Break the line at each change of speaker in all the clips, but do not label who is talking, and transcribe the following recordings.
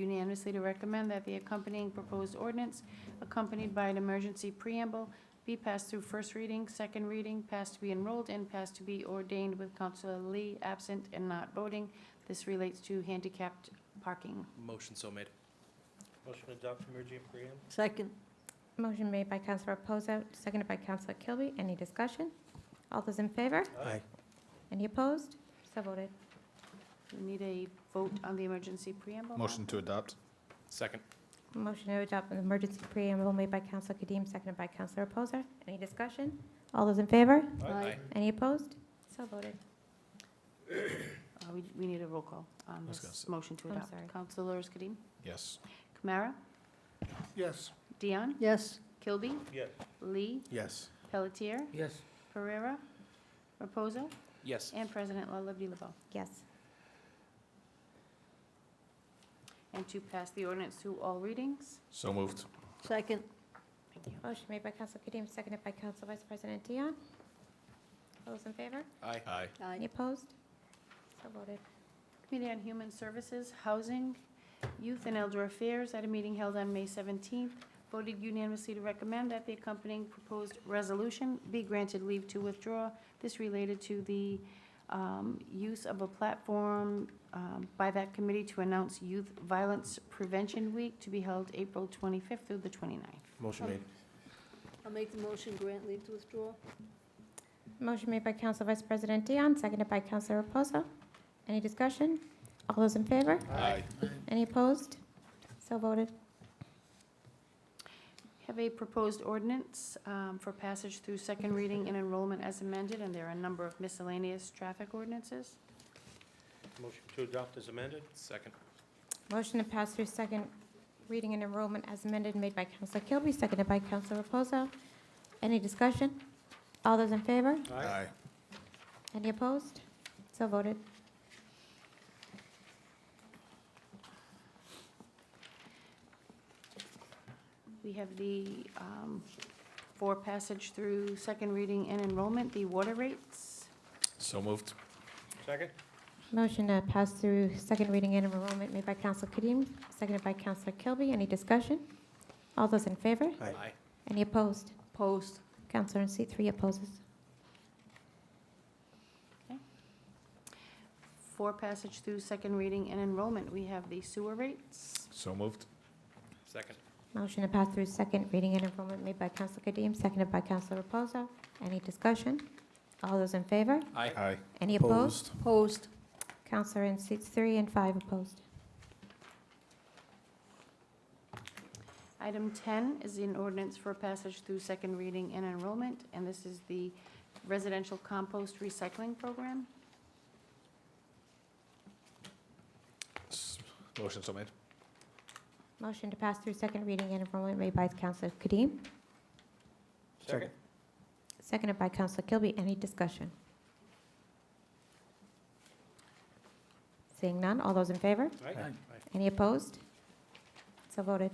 unanimously to recommend that the accompanying proposed ordinance, accompanied by an emergency preamble, be passed through first reading, second reading, passed to be enrolled, and passed to be ordained with Counselor Lee absent and not voting. This relates to handicapped parking.
Motion so made.
Motion to adopt emergency preamble?
Second.
Motion made by Counselor Reposo, seconded by Counselor Kilby. Any discussion? All those in favor?
Aye.
Any opposed? So voted.
We need a vote on the emergency preamble.
Motion to adopt.
Second.
Motion to adopt an emergency preamble made by Counselor Kadim, seconded by Counselor Reposo. Any discussion? All those in favor?
Aye.
Any opposed? So voted.
Uh, We we need a roll call on
I was gonna
this
say-
motion to
I'm
adopt.
sorry.
Counselors Kadim?
Yes.
Kamara?
Yes.
Dion?
Yes.
Kilby?
Yes.
Lee?
Yes.
Pelletier?
Yes.
Pereira? Reposo?
Yes.
And President La Liberty Laveau.
Yes.
And to pass the ordinance through all readings.
So moved.
Second.
Thank you.
Motion made by Counselor Kadim, seconded by Counselor Vice President Dion. All those in favor?
Aye.
Aye.
Uh,
Any opposed? So voted.
Committee on Human Services, Housing, Youth and Elder Affairs, at a meeting held on May 17th, voted unanimously to recommend that the accompanying proposed resolution be granted leave to withdraw. This related to the um, use of a platform um, by that committee to announce Youth Violence Prevention Week to be held April 25th through the 29th.
Motion made.
I'll make the motion, grant leave to withdraw.
Motion made by Counselor Vice President Dion, seconded by Counselor Reposo. Any discussion? All those in favor?
Aye.
Any opposed? So voted.
Have a proposed ordinance um, for passage through second reading and enrollment as amended, and there are a number of miscellaneous traffic ordinances.
Motion to adopt is amended?
Second.
Motion to pass through second reading and enrollment as amended made by Counselor Kilby, seconded by Counselor Reposo. Any discussion? All those in favor? Any opposed? So voted.
We have the, um, for passage through second reading and enrollment, the water rates.
So moved.
Second?
Motion to pass through second reading and enrollment made by Counselor Kadim, seconded by Counselor Kilby. Any discussion? All those in favor?
Aye.
Any opposed?
Post.
Counselor in seat three opposes.
For passage through second reading and enrollment, we have the sewer rates.
So moved.
Second.
Motion to pass through second reading and enrollment made by Counselor Kadim, seconded by Counselor Reposo. Any discussion? All those in favor?
Aye.
Aye.
Any opposed?
Post.
Counselor in seats three and five opposed.
Item 10 is an ordinance for passage through second reading and enrollment, and this is the residential compost recycling program.
S- Motion so made.
Motion to pass through second reading and enrollment made by Counselor Kadim,
Second?
seconded by Counselor Kilby. Any discussion? Seeing none, all those in favor?
Aye.
Any opposed? So voted.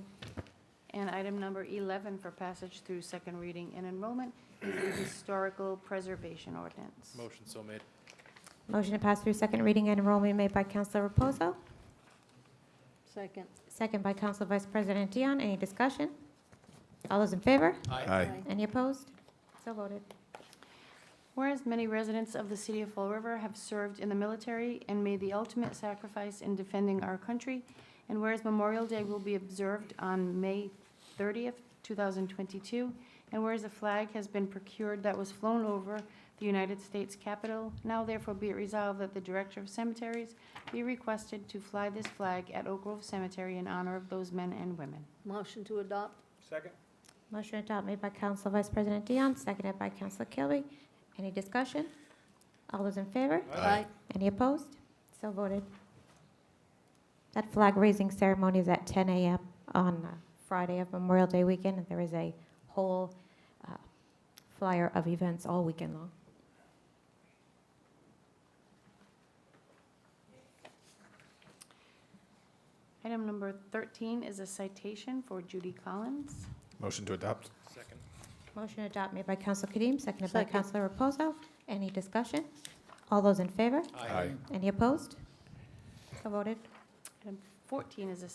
And item number 11 for passage through second reading and enrollment is the historical preservation ordinance.
Motion so made.
Motion to pass through second reading and enrollment made by Counselor Reposo,
Second.
second by Counselor Vice President Dion. Any discussion? All those in favor? Any opposed? So voted.
Whereas many residents of the city of Fall River have served in the military and made the ultimate sacrifice in defending our country, and whereas Memorial Day will be observed on May 30th, 2022, and whereas a flag has been procured that was flown over the United States Capitol, now therefore be it resolved that the Director of Cemeteries be requested to fly this flag at Oak Grove Cemetery in honor of those men and women.
Motion to adopt.
Second?
Motion adopted made by Council Vice President Dion, seconded by Council Kilby. Any discussion? All those in favor?
Aye.
Any opposed? So voted. That flag raising ceremony is at 10 a.m. on uh, Friday of Memorial Day weekend, and there is a whole uh, flyer of events all weekend long.
Item number 13 is a citation for Judy Collins.
Motion to adopt.
Second.
Motion adopted made by Council Kadim, seconded by
Second.
Council Reposo. Any discussion? All those in favor? Any opposed? So voted.
Item 14 is a